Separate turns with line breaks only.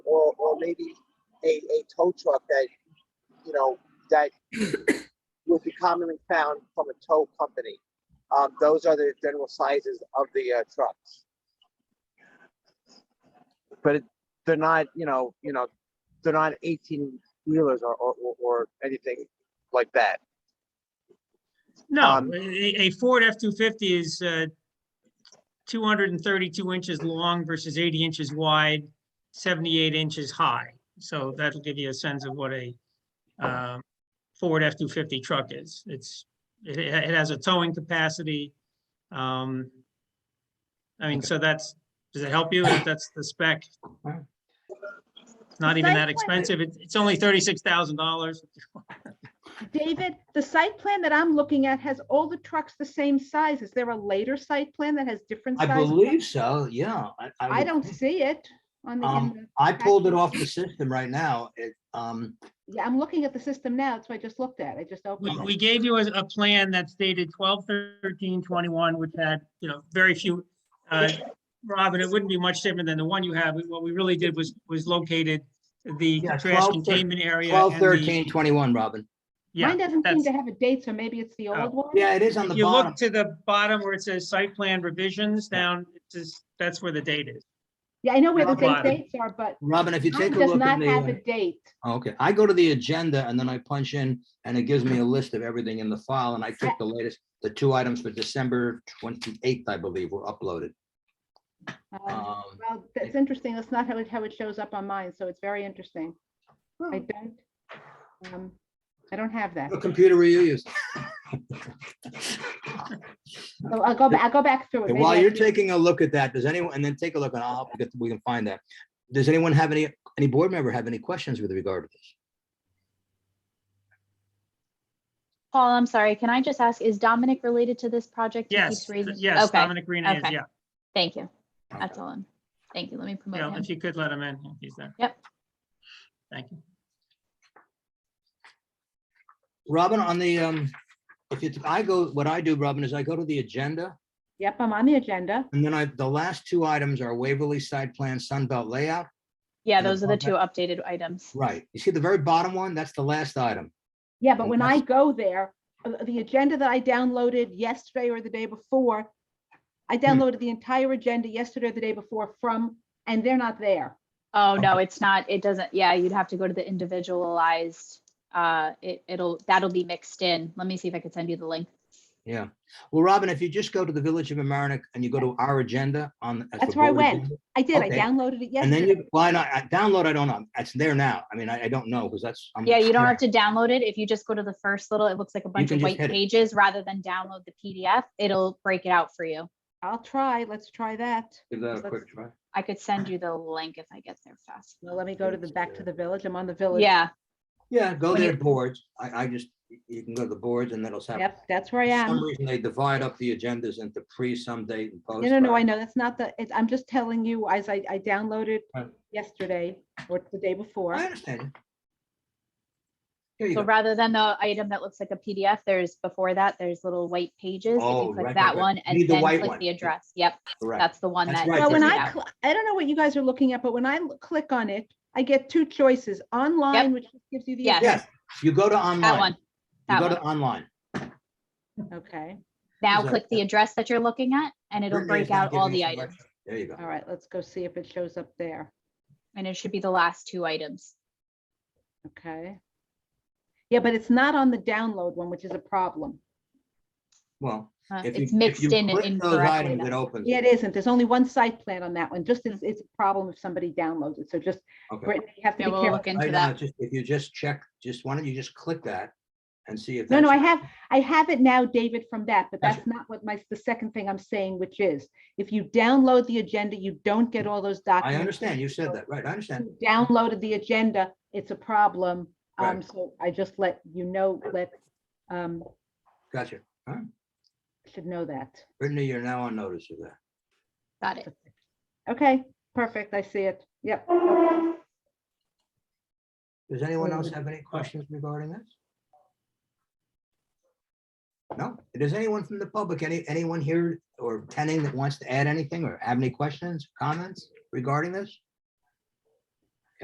or maybe a, a tow truck that, you know, that would be commonly found from a tow company. Um, those are the general sizes of the uh, trucks. But it- they're not, you know, you know, they're not eighteen wheelers or, or, or- or anything like that.
No,
Um,
a, a Ford F-250 is uh, 232 inches long versus 80 inches wide, 78 inches high. So that'll give you a sense of what a um, Ford F-250 truck is. It's, it, it has a towing capacity. um, I mean, so that's, does it help you? if That's the spec. It's Not even that expensive. It's, it's only $36,000.
David, the site plan that I'm looking at has all the trucks the same size. Is there a later site plan that has different
I
size?
believe so, yeah.
I
would-
don't see it on the, in
Um,
the-
I pulled it
package.
off the system right now. It, um,
yeah, I'm looking at the system now. That's what I just looked at. I just
We,
opened it.
we gave you a, a plan that's dated 12, 13, 21, which had, you know, very few. uh, Robin, it wouldn't be much different than the one you have. What we really did was, was located the
Yeah,
trash
12,
containment area. Oh,
twelve,
and the-
thirteen, twenty-one, Robin.
Yeah,
Mine doesn't seem
that's-
to have a date, so maybe it's the
Oh.
old one.
Yeah, it is on the
you
bottom.
look to the bottom where it says site plan revisions down, it's just, that's where the date is.
Yeah, I know where the
Never
date
mind.
dates are, but
Robin, if you
mine
take a
does
look at
not have a
the,
date.
uh, okay, I go to the agenda and then I punch in and it gives me a list of everything in the file and I took the latest, the two items for December twenty-eighth, I believe, were uploaded.
Um,
Um,
Well, that's interesting. That's not how it, how it shows up on mine, so it's very interesting. I
Hmm.
don't, um, I don't have that.
what computer were you using?
So I'll go, ba- I'll go back through it.
Okay,
Maybe
While
I
you're
can-
taking a look at that, does anyone, and then take a look and I'll, help you get- we can find that. Does anyone have any, any board member have any questions with regard to this?
Paul, I'm sorry, can I just ask, is Dominic related to this project? He keeps
Yes,
raising-
yes,
Okay,
Dominic Green is,
okay.
yeah.
thank you.
Okay.
That's all. I'm- Thank you. Let me
Yeah,
promote him.
if you could let him in, if he's there.
Yep.
Thank you.
Robin, on the, um, if you, I go, what I do, Robin, is I go to the agenda
Yep, I'm on the agenda.
and then I, the last two items are Waverly Side Plan Sunbelt Layout.
Yeah,
and
those are the
above
two updated items.
Right. You see the very bottom one? That's the last item.
Yeah, but when I
Fantastic.
go there, uh, the agenda that I downloaded yesterday or the day before, I
Hmm.
downloaded the entire agenda yesterday or the day before from, and they're not there.
Oh, no, it's not, it doesn't, yeah, you'd have to go to the individualized, uh, it, it'll, that'll be mixed in. Let me see if I could send you the link.
Yeah. Well, Robin, if you just go to the Village of Amerenik and you go to our agenda on. as the
That's where I
board
went.
agenda,
I did, I
Okay.
downloaded it
And then
yesterday.
you, why not? I download, I don't know. It's there now. I mean, I, I don't know because that's. I'm-
Yeah, you don't have to download it. If you just go to the first little, it looks like a bunch
can
of
just
white
hit it.
pages rather than download the PDF. It'll break it out for you.
I'll try, let's try that.
Give that a quick try.
I could send you the link if I get there fast.
Well, let me go to the, back to
Yeah.
the village, I'm on the village.
Yeah,
Yeah, go
When you-
there, boards. I, I just, you can go to the boards and that'll happen.
Yep, that's where I
For
am.
some reason, they divide up the agendas into pre, some date and post.
No, no, no,
but-
I know, that's not the, it's, I'm just telling you, as I, I downloaded
Right.
yesterday or the day before.
I understand. you. Here you
so
go.
rather than the item that looks like a PDF, there's before that, there's little white pages. If
Oh,
you
right, right,
click that
right.
one
You need
and
the
then
white
click
one.
the address. Yep,
Correct.
that's the one
That's
that.
right,
Well,
Right,
when
gives it
I,
out.
cl- I don't know what you guys are looking at, but when I l- click on it, I get two choices, online, which gives you the.
Yes.
Yes, you go to online.
That one,
You
that
go
one.
to online.
Okay,
Now
Is that-
click the address that you're looking at and it'll
Brittany
break
is now
out all
giving
the
us a
items.
lecture. There you go.
all right, let's go see if it shows up there,
And it should be the last two items.
okay? Yeah, but it's not on the download one, which is a problem.
Well.
Uh,
if you-
It's
if
mixed
you
in and
click those
incorrectly.
items, It
though.
opens.
Yeah,
it.
it isn't, there's only one site plan on that one, just it's, it's a problem if somebody downloads it, so just,
Okay.
Brittany, you have to
Yeah,
be
we'll
careful.
look into
Right now,
that.
just, if you just check, just, why don't you just click that and see if.
No, no, I
that's-
have, I have it now, David, from that, but
That's
that's not what my, the second thing I'm saying, which is, if you download the agenda, you don't get all those
I
documents.
understand. You said that, right? I understand.
who downloaded the agenda, it's a problem.
Right.
Um, so I just let you know, let, um,
Gotcha.
should know that.
Brittany, you're now on notice of that.
Got it.
Okay, perfect. I see it. Yep.
Does anyone else have any questions regarding this? No? Does anyone from the public, any, anyone here or attending that wants to add anything or have any questions, comments regarding this?